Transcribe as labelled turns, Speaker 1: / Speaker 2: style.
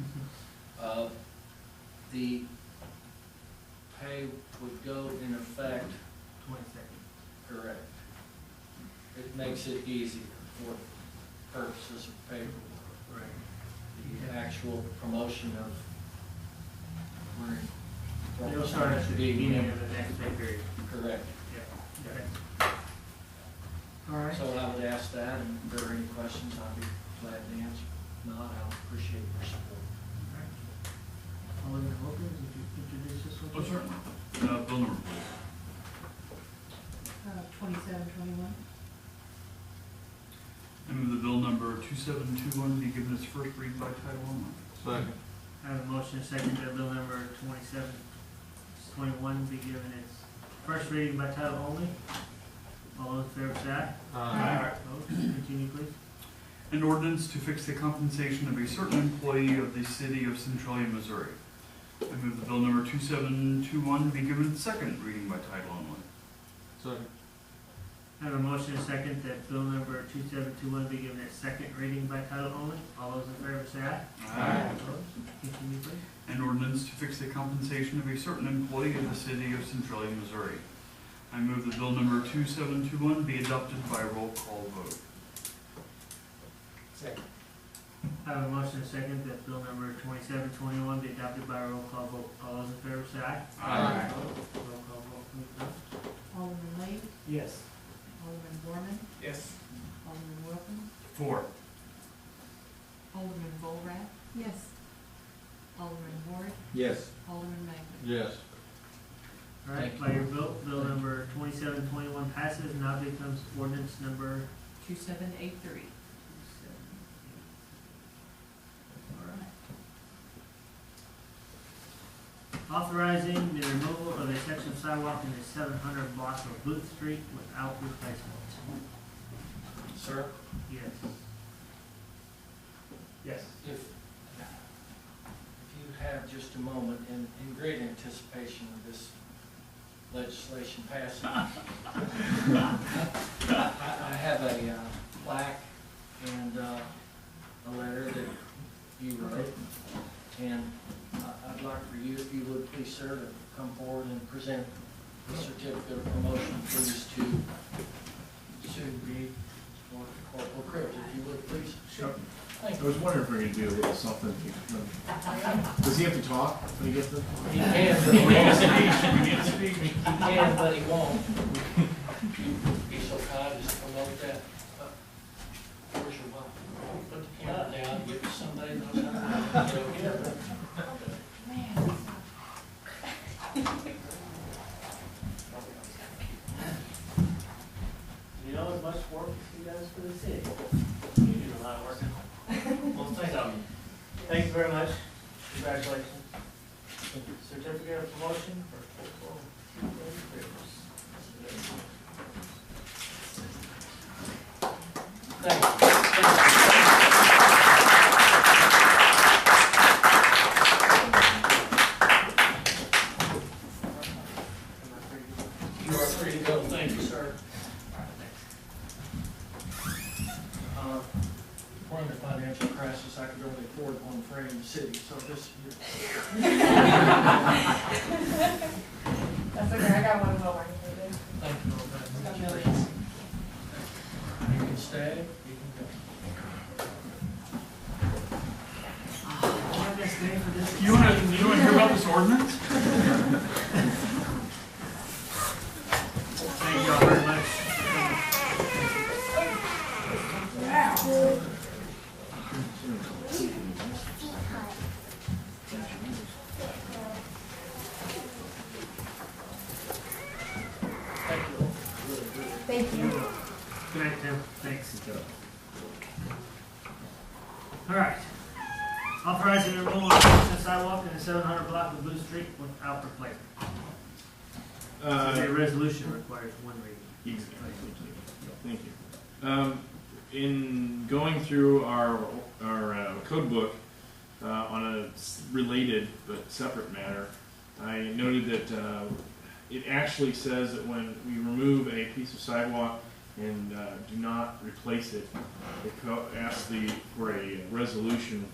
Speaker 1: Mm-hmm.
Speaker 2: Uh, The pay would go in effect,
Speaker 1: Twenty-second.
Speaker 2: correct. It makes it easier for purposes of paperwork,
Speaker 1: Right.
Speaker 2: the actual promotion of. we're-
Speaker 1: It'll start at the beginning of the next pay period.
Speaker 2: Correct.
Speaker 1: Yeah. All right.
Speaker 2: So I would ask that, and if there are any questions, I'd be glad to answer. If Not, I'll appreciate your support.
Speaker 1: Alderman Wilkins, would you introduce this one?
Speaker 3: Oh, sure. Uh, bill number, please.
Speaker 4: Uh, twenty-seven, twenty-one.
Speaker 3: I move the bill number 2721 be given its first read by title only.
Speaker 5: Second.
Speaker 1: I have a motion, second, that bill number twenty-seven, twenty-one be given its first reading by title only. All those in favor say aye.
Speaker 4: Aye.
Speaker 1: Opposed? Continue, please.
Speaker 3: An ordinance to fix the compensation of a certain employee of the city of Centralia, Missouri. I move the bill number 2721 be given its second reading by title only.
Speaker 5: Second.
Speaker 1: I have a motion, second, that bill number two-seven-two-one be given its second reading by title only. All those in favor say aye. Opposed? Continue, please.
Speaker 3: An ordinance to fix the compensation of a certain employee of the city of Centralia, Missouri. I move the bill number 2721 be adopted by roll call vote.
Speaker 2: Second.
Speaker 1: I have a motion, second, that bill number twenty-seven twenty-one be adopted by roll call vote. All those in favor say aye.
Speaker 4: Aye.
Speaker 1: Roll call vote, please, Bill.
Speaker 4: Alderman Lane,
Speaker 1: Yes.
Speaker 4: Alderman Borman,
Speaker 5: Yes.
Speaker 4: Alderman Wilkins,
Speaker 3: Four.
Speaker 4: Alderman Borat. Yes. Alderman Ward,
Speaker 5: Yes.
Speaker 4: Alderman Magley.
Speaker 5: Yes.
Speaker 1: All right,
Speaker 2: Thank
Speaker 1: by your vote, bill number twenty-seven twenty-one passes and now becomes ordinance number
Speaker 4: Two-seven, eight-three.
Speaker 1: seven. Authorizing the removal of a section of sidewalk in the seven hundred block of Booth Street without replacement.
Speaker 2: Sir?
Speaker 1: Yes. Yes.
Speaker 2: If, if you have just a moment, in, in great anticipation of this legislation passing, I, I have a uh, plaque and, uh, a letter that you wrote, and I, I'd like for you, if you would please, sir, to come forward and present the certificate of promotion, please, to Sue B. or Corporal Cribbs, if you would, please.
Speaker 6: Sure.
Speaker 2: Thank
Speaker 6: I was wondering if we could do a little something. Does he have to talk when he gets the?
Speaker 2: He can, but he won't.
Speaker 3: We need a speech.
Speaker 2: He can, but he won't. Be so kind as to promote that. Uh, Where's your mom? Put the camera down, give it to somebody who knows how to get it.
Speaker 1: You know, as much work as you guys for the city. You do a lot of work. Well, thank you. Thank you very much. Congratulations. Certificate of promotion for Corporal Cribbs.
Speaker 2: Thank you. Thank you. You are free to go, thank you, sir. Uh, We're in the financial crisis, I could only afford one frame in the city, so this,
Speaker 4: That's okay, I got one more.
Speaker 2: thank you all very much. You can stay, you can go.
Speaker 3: You wanna, you wanna hear about this ordinance?
Speaker 1: Thank you all very much.
Speaker 2: Thank you all. Really, really.
Speaker 4: Thank you.
Speaker 1: Good night, Tim. Thanks. All right. Authorizing the removal of section of sidewalk in the seven hundred block of Blue Street without replacement.
Speaker 6: Uh,
Speaker 1: The resolution requires one reading.
Speaker 6: Exactly, thank you, thank you. Um, in going through our, our uh, code book, uh, on a s- related but separate matter, I noted that, uh, it actually says that when we remove a piece of sidewalk and, uh, do not replace it, it co- asks the, for a resolution